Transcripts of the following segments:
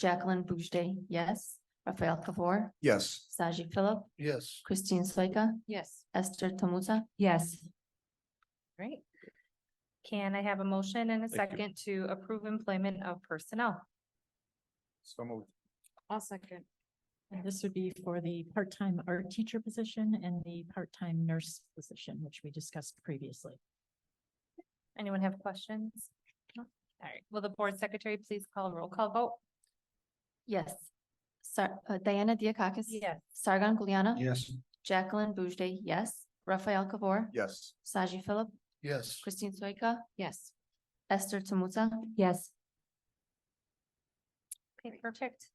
Jacqueline Boujde, yes. Rafael Kabor, Yes. Saji Philip, Yes. Christine Soika, Yes. Esther Tomuta. Yes. Great. Can I have a motion and a Thank you. second to approve employment of personnel? So moved. I'll second. And this would be for the part-time art teacher position and the part-time nurse position, which we discussed previously. Anyone have questions? No? All right, will the board secretary please call a roll call vote? Yes. Sar- uh, Diana Diakakis? Sargon Guliana? Yes. Jacqueline Boujde, yes. Rafael Kabor? Yes. Saji Philip, Yes. Christine Soika, Yes. Esther Tomuta. Yes. Okay, perfect.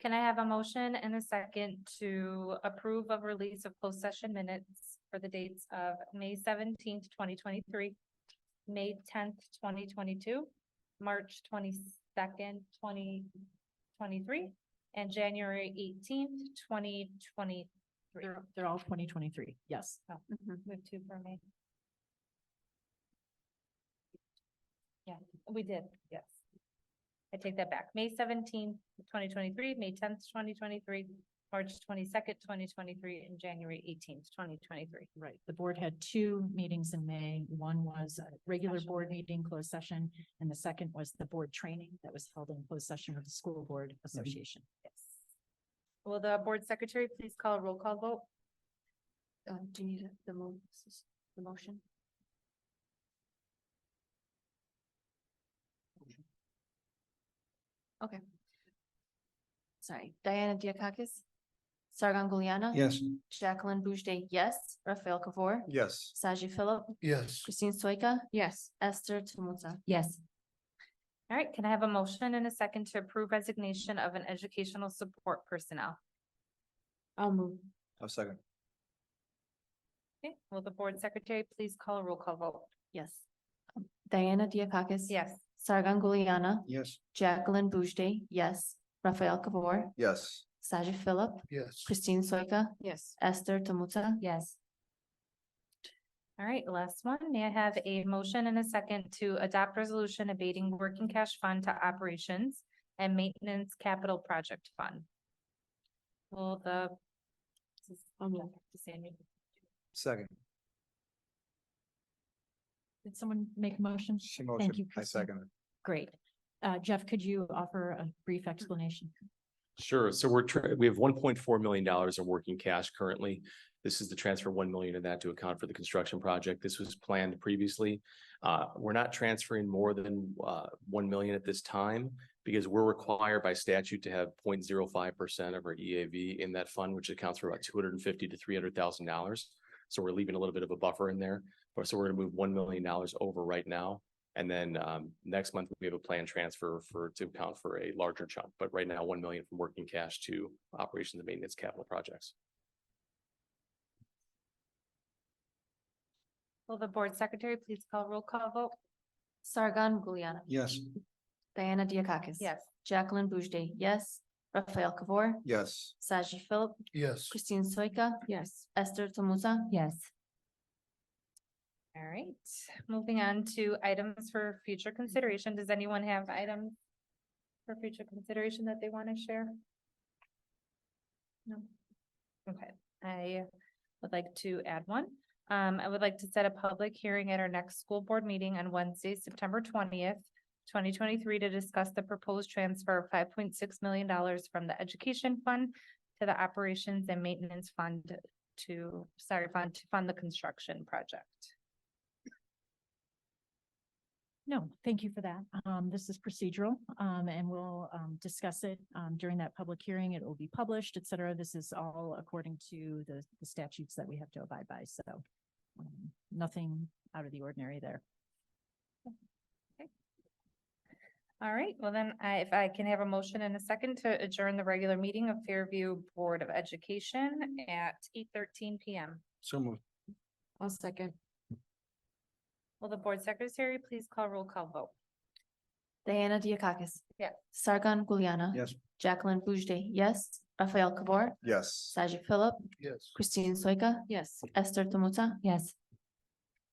Can I have a motion and a second to approve of release of closed session minutes for the dates of May seventeenth, twenty twenty-three, May tenth, twenty twenty-two, March twenty-second, twenty twenty-three, and January eighteenth, twenty twenty-three. They're, they're all twenty twenty-three. Yes. Mm-hmm. Move two for me. Yeah, we did, yes. I take that back. May 17th, 2023, May tenth, twenty twenty-three, March twenty-second, twenty twenty-three, and January eighteenth, twenty twenty-three. Right. The board had two meetings in May. One was a regular Special. board meeting, closed session, and the second was the board training that was held in closed session with the School Board Association. Yes. Will the board secretary please call a roll call vote? Uh, do you need the move, the motion? Okay. Sorry, Diana Diakakis? Sargon Guliana? Yes. Jacqueline Boujde, yes. Rafael Kabor? Yes. Saji Philip, Yes. Christine Soika, Yes. Esther Tomuta. Yes. All right, can I have a motion and a second to approve resignation of an educational support personnel? I'll move. A second. Okay, will the board secretary please call a roll call vote? Yes. Diana Diakakis? Yes. Sargon Guliana? Yes. Jacqueline Boujde, yes. Rafael Kabor? Yes. Saji Philip, Yes. Christine Soika, Yes. Esther Tomuta. Yes. All right, last one. May I have a motion and a second to adopt resolution abating working cash fund to operations and maintenance capital project fund? Will the Second. Did someone make a motion? She motioned. you, I Kristen. second. Great. Uh, Jeff, could you offer a brief explanation? Sure. So we're, tr- we have one point four million dollars in working cash currently. This is the transfer one million of that to account for the construction project. This was planned previously. Uh, we're not transferring more than, uh, one million at this time because we're required by statute to have 0.05 percent of our EAV in that fund, which accounts for about two hundred and fifty to three hundred thousand dollars. So we're leaving a little bit of a buffer in there. But so we're gonna move one million dollars over right now. And then um next month, we have a planned transfer for to account for a larger chunk, but right now, one million from working cash to operations and maintenance capital projects. will the board secretary please call roll call vote? Sargon Guliana. Yes. Diana Diakakis. Yes. Jacqueline Boujde, yes. Rafael Kabor. Yes. Saji Philip, Yes. Christine Soika, Yes. Esther Tomuta. Yes. All right, moving on to items for future consideration. Does anyone have items for future consideration that they want to share? No? Okay, I would like to add one. Um, I would like to set a public hearing at our next school board meeting on Wednesday, September twentieth, twenty twenty-three to discuss the proposed transfer of five point six million dollars from the education fund to the operations and maintenance fund to, sorry, fund to fund the construction project. No, thank you for that. Um, this is procedural, um, and we'll, um, discuss it, um, during that public hearing. It will be published, et cetera. This is all according to the, the statutes that we have to abide by, so um, nothing out of the ordinary there. All right, well then, I, if I can have a motion and a second to adjourn the regular meeting of Fairview Board of Education at eight thirteen PM. So moved. I'll second. Will the board secretary please call roll call vote? Diana Diakakis. Yeah. Sargon Guliana. Yes. Jacqueline Boujde, yes. Rafael Kabor. Yes. Saji Philip, Yes. Christine Soika, Yes. Esther Tomuta. Yes.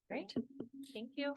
Great, thank you.